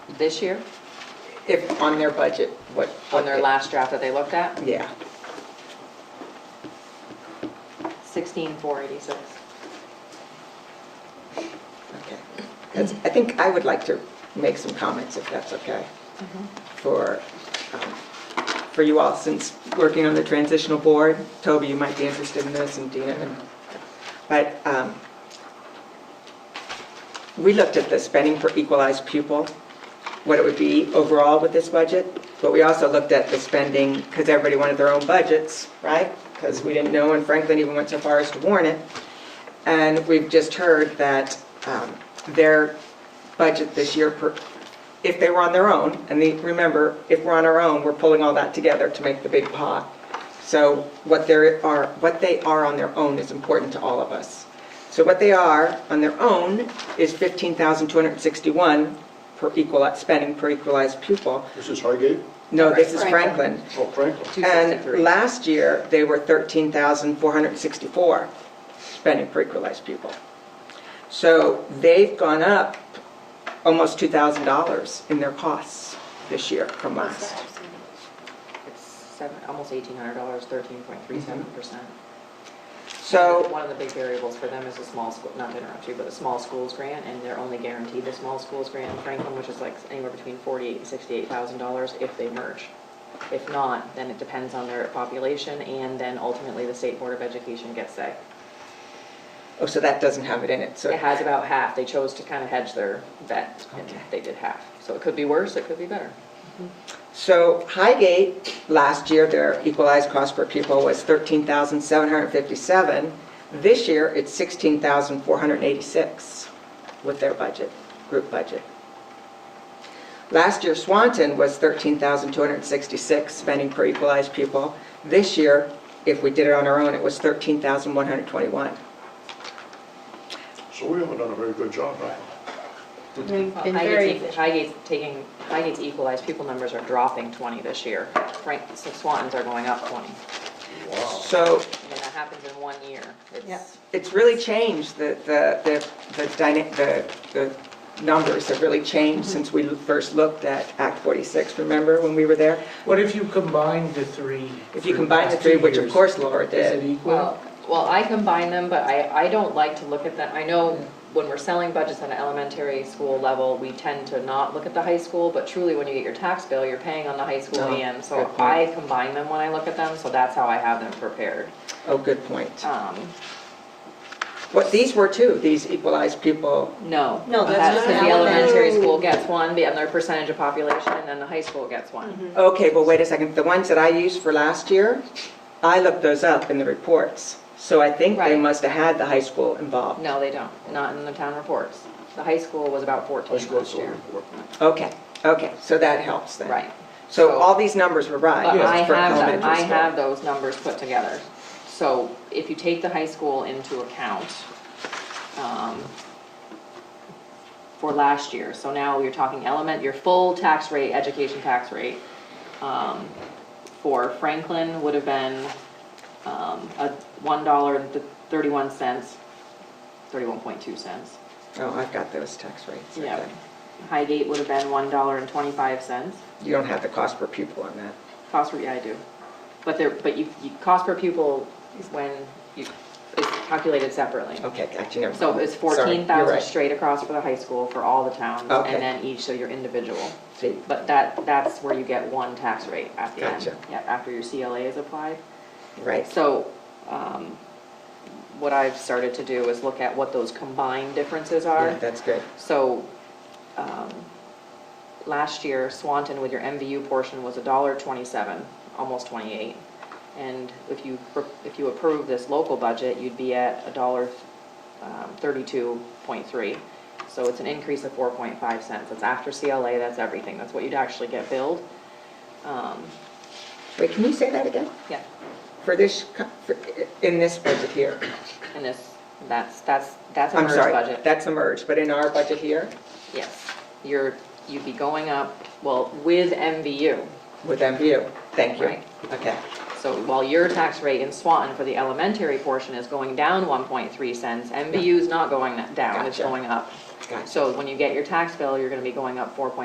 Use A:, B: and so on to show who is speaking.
A: this year,
B: If, on their budget, what?
A: on their
B: what-
A: last draft that they looked at?
B: Yeah,
A: Sixteen, four eighty-six.
B: okay. That's, I think I would like to make some comments, if that's okay, for, um, for you all, since working on the transitional board. Toby, you might be interested in this, and Dina, and- but um, we looked at the spending per equalized pupil, what it would be overall with this budget, but we also looked at the spending, because everybody wanted their own budgets, right? Because we didn't know, and Franklin even went so far as to warn it. And we've just heard that um, their budget this year, per if they were on their own, and the- remember, if we're on our own, we're pulling all that together to make the big pot. So what there are, what they are on their own is important to all of us. So what they are on their own is 15,261 per equal, spending per equalized pupil.
C: This is Highgate?
B: No, this is
A: Franklin.
B: Franklin.
C: Oh, Franklin.
B: And
A: 263.
B: last year, they were 13,464 spending per equalized pupil. So they've gone up almost $2,000 in their costs this year from last.
A: It's seven, almost eighteen hundred dollars, thirteen point three seven percent.
B: So,
A: One of the big variables for them is a small school, not to interrupt you, but a small schools grant, and they're only guaranteed a small schools grant in Franklin, which is like anywhere between forty-eight and sixty-eight thousand dollars if they merge. If not, then it depends on their population, and then ultimately the State Board of Education gets say.
B: oh, so that doesn't have it in it, so.
A: It has about half, they chose to kind of hedge their bet, and they did half. So it could be worse, it could be better.
B: So Highgate, last year, their equalized cost per pupil was 13,757. This year, it's 16,486 with their budget, group budget. Last year, Swanton was 13,266 spending per equalized pupil. This year, if we did it on our own, it was 13,121.
C: So we haven't done a very good job, right?
D: Been very
A: Highgate's, e-, Highgate's taking, Highgate's equalized pupil numbers are dropping 20 this year. Frank, so Swanton's are going up 20.
C: Wow.
B: So
A: And that happens in one year. It's
B: it's really changed, the, the, the, the dyna- the, the numbers have really changed since we first looked at Act 46, remember when we were there?
E: What if you combine the three?
B: If you combine the three, which of course Laura
E: Is it
B: did,
E: equal?
A: Well, I combine them, but I, I don't like to look at them. I know when we're selling budgets at an elementary school level, we tend to not look at the high school, but truly when you get your tax bill, you're paying on the high school
B: Oh,
A: and so
B: good point.
A: I combine them when I look at them, so that's how I have them prepared.
B: oh, good point.
A: Um,
B: What, these were too, these equalized pupil,
A: No.
D: No, that's
A: That's
D: not
A: because the
D: how it
A: elementary
D: is.
A: school gets one, the other percentage of population, and then the high school gets one.
B: okay, well, wait a second, the ones that I used for last year, I looked those up in the reports, so I think they
A: Right.
B: must have had the high school involved.
A: No, they don't, not in the town reports. The high school was about
C: High
A: 14
C: school,
A: last
C: so
A: year.
C: report.
B: Okay, okay, so that helps then.
A: Right.
B: So all these numbers were right.
A: But I
B: for
A: have, them-
B: elementary
A: I
B: school.
A: have those numbers put together. So if you take the high school into account um, for last year, so now you're talking element, your full tax rate, education tax rate, um, for Franklin would have been um, a one dollar and thirty-one cents, thirty-one point two cents.
B: Oh, I've got those tax rates.
A: Yeah.
B: okay.
A: Highgate would have been one dollar and twenty-five cents.
B: You don't have the cost per pupil on that.
A: Cost per, yeah, I do. But there, but you, you, cost per pupil is when you, it's calculated separately.
B: Oh, Okay, gotcha, never mind.
A: So it's
B: Sorry, you're
A: fourteen thousand
B: right.
A: straight across for the high school for all the towns,
B: Okay.
A: and then each, so you're individual.
B: See,
A: But that, that's where you get one tax rate at the end.
B: Gotcha.
A: Yeah, after your CLA is applied.
B: Right,
A: So, um, what I've started to do is look at what those combined differences
B: yeah,
A: are.
B: that's good.
A: So, um, last year, Swanton with your MVU portion was a dollar twenty-seven, almost twenty-eight. And if you, if you approve this local budget, you'd be at a dollar um, thirty-two point three. So it's an increase of four point five cents. That's after CLA, that's everything. That's what you'd actually get billed. Um,
B: Wait, can you say that again?
A: Yeah,
B: For this, co- for- in this budget here?
A: and this, that's, that's, that's a
B: I'm
A: merge
B: sorry,
A: budget.
B: that's a merge, but in our budget here
A: Yes, you're, you'd be going up, well, with MVU.
B: with MVU? Thank you.
A: Right.
B: Okay,
A: So while your tax rate in Swanton for the elementary portion is going down 1.3 cents, MBU is not going that down, it's
B: Gotcha.
A: going up.
B: Gotcha.
A: So when you get your tax bill, you're gonna be going up 4.3